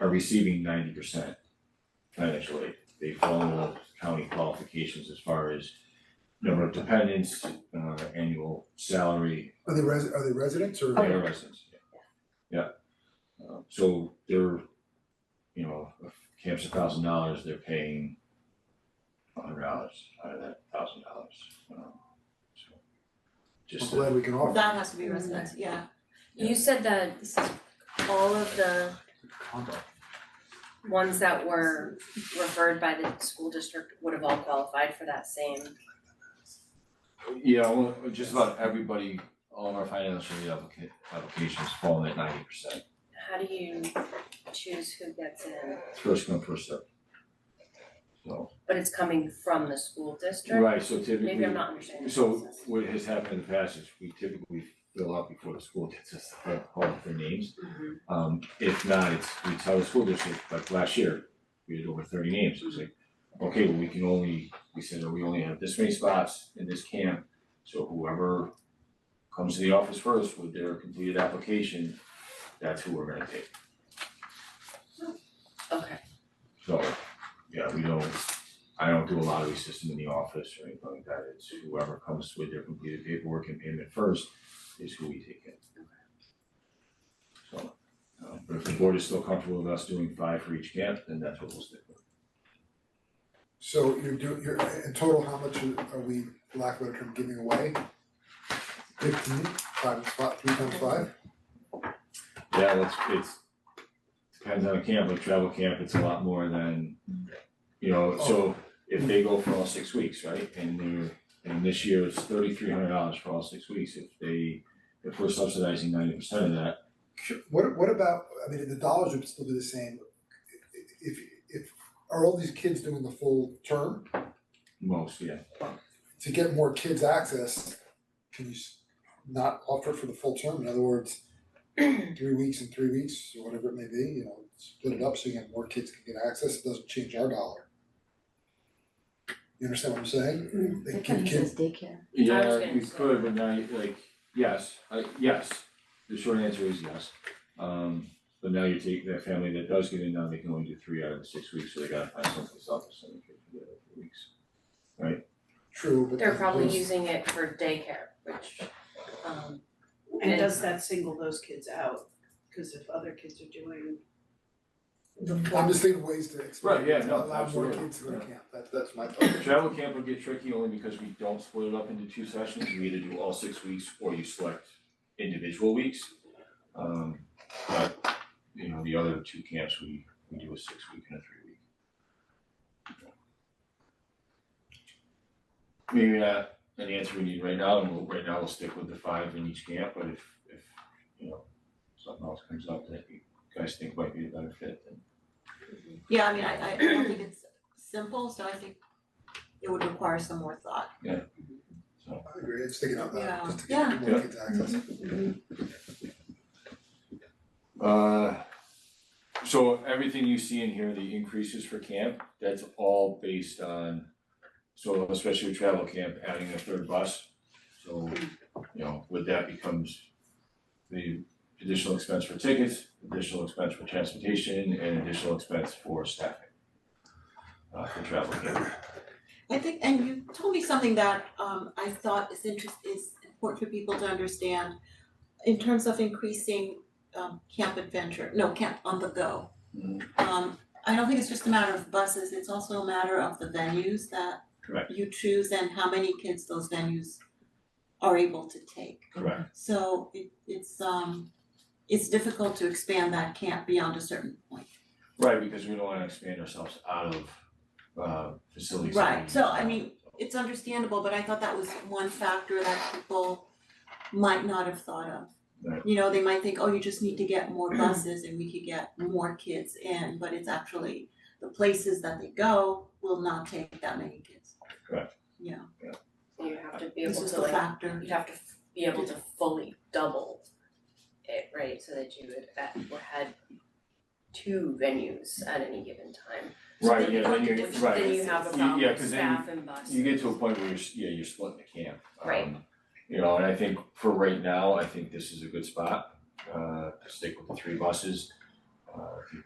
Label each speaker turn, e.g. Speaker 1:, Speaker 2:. Speaker 1: are receiving ninety percent financial aid. They follow county qualifications as far as number of dependents, uh, annual salary,
Speaker 2: Are they res- are they residents or?
Speaker 1: they are residents, yeah. Yeah. Uh, so they're, you know, if camp's a thousand dollars, they're paying a hundred dollars out of that thousand dollars, um, so.
Speaker 2: I'm
Speaker 1: Just, a-
Speaker 2: glad we can offer.
Speaker 3: That has to be residents, yeah.
Speaker 4: You said that this is all of the
Speaker 2: Combo.
Speaker 4: ones that were referred by the school district would have all qualified for that same.
Speaker 1: yeah, well, just about everybody, all of our financial aid applica- applications fall in at ninety percent.
Speaker 4: How do you choose who gets in?
Speaker 1: First come, first served. So,
Speaker 4: But it's coming from the school district?
Speaker 1: right, so typically.
Speaker 4: Maybe I'm not understanding the
Speaker 1: So
Speaker 4: process.
Speaker 1: what has happened in the past is we typically fill out before the school gets us the full call for names.
Speaker 3: Mm-hmm.
Speaker 4: Mhm.
Speaker 1: Um, if not, it's, we tell the school district, like last year, we had over thirty names, it was like, okay, well, we can only, we said, oh, we only have this many spots in this camp. So whoever comes to the office first with their completed application, that's who we're gonna take.
Speaker 4: Okay,
Speaker 1: So, yeah, we don't, I don't do a lottery system in the office or anything like that, it's whoever comes with their completed paperwork and payment first is who we take in. So, uh, but if the board is still comfortable with us doing five for each camp, then that's what we'll stick with.
Speaker 2: So you're doing, you're, in total, how much are- are we, for lack of a better term, giving away? Fifteen, five, times five, three times five?
Speaker 1: Yeah, it's, it's, depends on the camp, like travel camp, it's a lot more than, you know, so if they go for all six weeks, right? And they're, and this year it's thirty-three hundred dollars for all six weeks, if they, if we're subsidizing ninety percent of that,
Speaker 2: What what about, I mean, the dollars would still be the same. If if, are all these kids doing the full term?
Speaker 1: Most, yeah.
Speaker 2: To get more kids access, can you s- not offer it for the full term? In other words, three weeks and three weeks, or whatever it may be, you know, split it up so you have more kids can get access, it doesn't change our dollar. You understand what I'm saying? They can kids,
Speaker 3: daycare.
Speaker 4: I was
Speaker 1: Yeah,
Speaker 4: gonna
Speaker 1: we
Speaker 4: say
Speaker 1: could, but now, you- like, yes, I, yes, the short answer is yes. Um, but now you take that family that does get in, now they can only do three out of the six weeks, so they gotta find someplace else, so they can do the other three weeks.
Speaker 2: true, but.
Speaker 4: they're probably
Speaker 2: there's-
Speaker 4: using it for daycare, which, um,
Speaker 5: And does that single those kids out? Cause if other kids are doing,
Speaker 2: I'm just thinking ways to expand,
Speaker 1: Right, yeah, no,
Speaker 2: to allow more
Speaker 1: absolutely,
Speaker 2: kids to the
Speaker 1: yeah.
Speaker 2: camp, that that's my thought.
Speaker 1: Travel camp would get tricky only because we don't split it up into two sessions, you either do all six weeks or you select individual weeks. Um, but, you know, the other two camps, we, we do a six week and a three week. Maybe not an answer we need right now, and we'll, right now we'll stick with the five in each camp, but if, if, you know, something else comes up that you guys think might be a better fit, then
Speaker 3: Yeah, I mean, I I I don't think it's simple, so I think it would require some more thought.
Speaker 2: I agree, it's sticking out that,
Speaker 3: Yeah.
Speaker 2: just to get more
Speaker 1: Yeah.
Speaker 2: kids access.
Speaker 1: Uh, so everything you see in here, the increases for camp, that's all based on, so especially with travel camp, adding a third bus. So, you know, with that becomes the additional expense for tickets, additional expense for transportation, and additional expense for staffing. Uh, for travel camp,
Speaker 3: I think, and you told me something that um I thought is interest is important for people to understand in terms of increasing um camp adventure, no, camp on the go.
Speaker 1: Mhm.
Speaker 3: Um I don't think it's just a matter of buses, it's also a matter of the venues that
Speaker 1: Correct.
Speaker 3: you choose and how many kids those venues are able to take.
Speaker 1: correct,
Speaker 3: So it it's um it's difficult to expand that camp beyond a certain point.
Speaker 1: right, because we don't wanna expand ourselves out of uh facilities. that we
Speaker 3: Right, so I
Speaker 1: use.
Speaker 3: mean, it's understandable, but I thought that was one factor that people might not have thought of.
Speaker 1: Right.
Speaker 3: You know, they might think, oh, you just need to get more buses and we could get more kids in, but it's actually the places that they go will not take that many kids.
Speaker 4: you have to be
Speaker 3: This
Speaker 4: able
Speaker 3: is
Speaker 4: to
Speaker 3: the
Speaker 4: like,
Speaker 3: factor.
Speaker 4: you'd have to f- be able to fully double it, right? So that you would, at- or had two venues at any given time. So
Speaker 1: Right,
Speaker 4: then
Speaker 1: yeah,
Speaker 4: you-
Speaker 1: then you're,
Speaker 3: different-
Speaker 1: right.
Speaker 4: Then you have a
Speaker 1: You-
Speaker 4: problem
Speaker 1: yeah,
Speaker 4: with
Speaker 1: 'cause then
Speaker 4: staff and buses.
Speaker 1: You get to a point where you're, s- yeah, you're splitting the camp. Um,
Speaker 4: Right.
Speaker 1: You know, and I think for right now, I think this is a good spot, uh, to stick with the three buses. Uh, if you